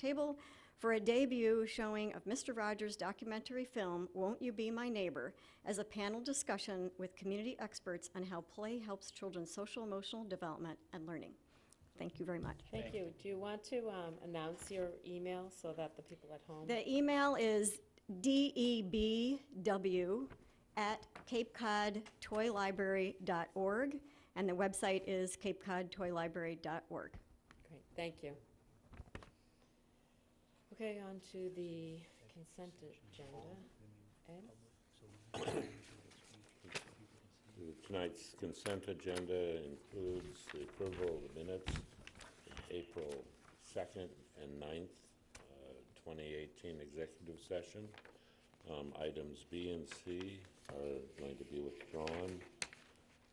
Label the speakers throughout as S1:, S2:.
S1: table for a debut showing of Mr. Rogers' documentary film, Won't You Be My Neighbor, as a panel discussion with community experts on how play helps children's social emotional development and learning. Thank you very much.
S2: Thank you. Do you want to um, announce your email so that the people at home?
S1: The email is debw at capecodtoylibrary.org, and the website is capecodtoylibrary.org.
S2: Great, thank you. Okay, on to the consent agenda. Ed?
S3: Tonight's consent agenda includes the approval of the minutes of April 2nd and 9th, uh, 2018 executive session. Um, Items B and C are going to be withdrawn.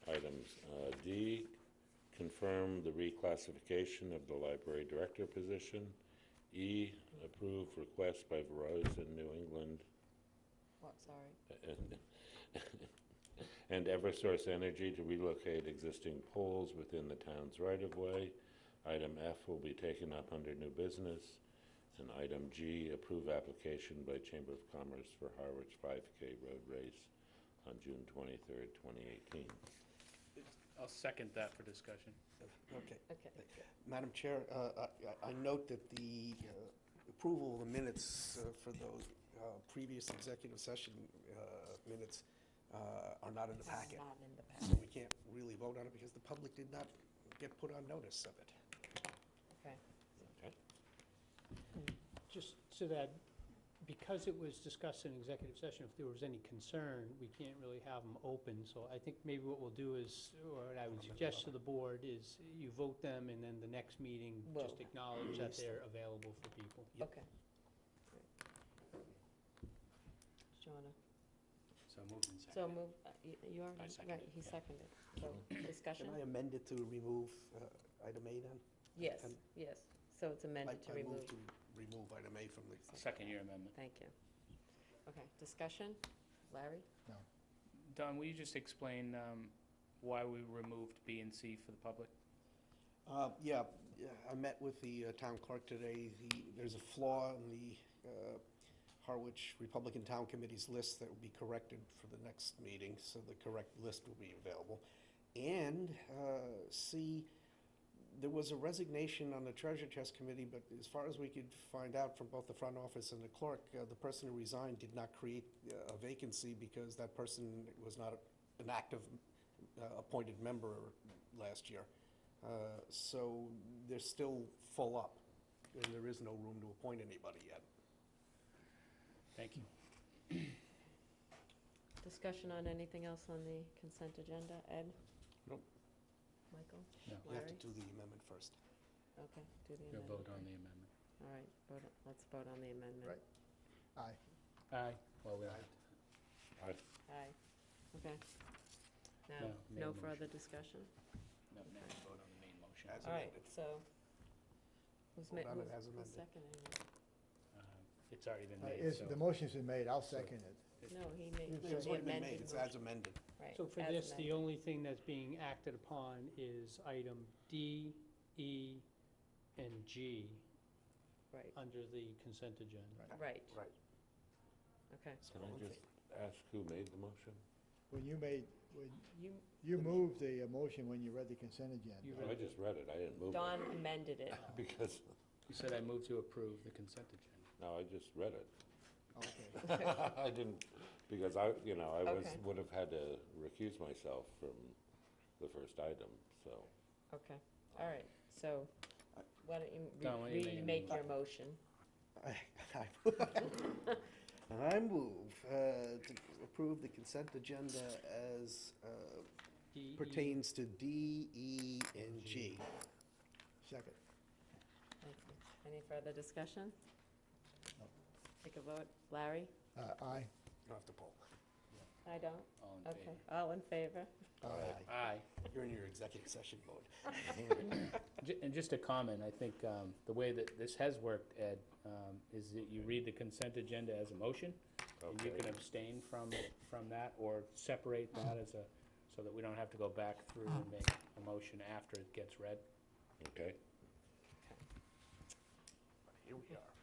S3: Items uh, D, confirm the reclassification of the library director position. E, approve request by Verizon New England
S2: What, sorry?
S3: and- and Eversource Energy to relocate existing poles within the town's right-of-way. Item F will be taken up under new business. And item G, approve application by Chamber of Commerce for Harwich 5K Road Race on June 23rd, 2018.
S4: I'll second that for discussion.
S5: Okay.
S2: Okay.
S5: Madam Chair, uh, I- I I note that the uh, approval of the minutes uh, for those uh, previous executive session uh, minutes uh, are not in the packet.
S2: Not in the
S5: So
S2: packet,
S5: we can't really vote on it because the public did not get put on notice of it.
S2: okay.
S6: Just so that, because it was discussed in executive session, if there was any concern, we can't really have them open. So I think maybe what we'll do is, or what I would suggest to the board is you vote them and then the next meeting, just
S2: Well,
S6: acknowledge that they're available for people.
S2: Okay. Great. Joanna,
S4: So moved and
S2: so
S4: seconded.
S2: move, uh, y- you are,
S4: second
S2: right,
S4: it,
S2: he
S4: yeah.
S2: seconded. So
S5: Can
S2: discussion?
S5: I amend it to remove uh, item A then?
S2: Yes,
S5: can-
S2: yes. So it's amended
S5: I-
S2: to
S5: I
S2: remove.
S5: move to remove item A from the,
S4: I'll Second your amendment.
S2: Thank you. Okay, discussion? Larry?
S4: Don, will you just explain um, why we removed B and C for the public?
S5: Uh, Yeah, yeah, I met with the uh, town clerk today. The- There's a flaw in the uh, Harwich Republican Town Committee's list that will be corrected for the next meeting, so the correct list will be available. And uh, C, there was a resignation on the Treasure Chest Committee, but as far as we could find out from both the front office and the clerk, uh, the person who resigned did not create uh, a vacancy because that person was not an active uh, appointed member last year. Uh, So they're still full up, and there is no room to appoint anybody yet.
S4: Thank you.
S2: Discussion on anything else on the consent agenda? Ed?
S5: Nope.
S2: Michael?
S4: No.
S5: You have to
S2: Larry?
S5: do the amendment first.
S2: Okay, do the amendment.
S4: You'll vote on
S2: first.
S4: the amendment.
S2: All right, vote on- let's vote on the amendment.
S4: Aye. Well, we don't have to.
S2: Aye. Okay.
S4: No,
S2: Now,
S4: main
S2: no
S4: motion.
S2: further discussion?
S4: No, no, we vote on the main motion. Uh,
S5: As
S2: All right,
S5: amended.
S2: so. Who's ma-
S5: Vote on it
S2: who's-
S5: as
S2: who's
S5: amended.
S2: seconding it?
S4: Uh, It's already been
S7: Uh,
S4: made,
S7: It's,
S4: so.
S7: the motion's been made, I'll second it.
S2: No, he made.
S7: It's
S2: he
S5: It's already been made,
S2: amended
S5: it's
S2: motion.
S5: as amended.
S2: Right,
S6: So for
S2: as
S6: this, the
S2: amended.
S6: only thing that's being acted upon is item D, E, and G
S2: Right,
S6: under the consent agenda.
S2: right,
S5: Right.
S2: okay.
S3: Can I just ask who made the motion?
S7: When you made, when,
S2: You,
S7: you moved the uh, motion when you read the consent
S6: You
S7: agenda.
S3: Oh, I just read it, I didn't move
S2: Don
S3: it.
S2: amended it.
S3: Because,
S4: You said I move to approve the consent agenda.
S3: no, I just read it.
S7: Okay.
S3: I didn't, because I, you know, I was,
S2: Okay.
S3: would have had to recuse myself from the first item, so.
S2: Okay, all right, so why don't
S4: Don, why don't
S2: you
S4: you
S2: re-
S4: make a
S2: remake your motion?
S5: I move uh, to approve the consent agenda as uh,
S6: D, E,
S5: pertains to D, E, and G.
S7: Second.
S2: Thank you. Any further discussion? Take a vote. Larry?
S7: Uh, Aye.
S5: You don't have to poll.
S2: I don't?
S4: All in
S2: Okay,
S4: favor?
S2: all in favor?
S7: Aye.
S4: Aye.
S5: You're in your executive session mode.
S4: Ju- And just a comment, I think um, the way that this has worked, Ed, um, is that you read the consent agenda as a motion, and you
S3: Okay.
S4: can abstain from, from that, or separate that as a, so that we don't have to go back through and make a motion after it gets read.
S3: Okay.
S5: here we are.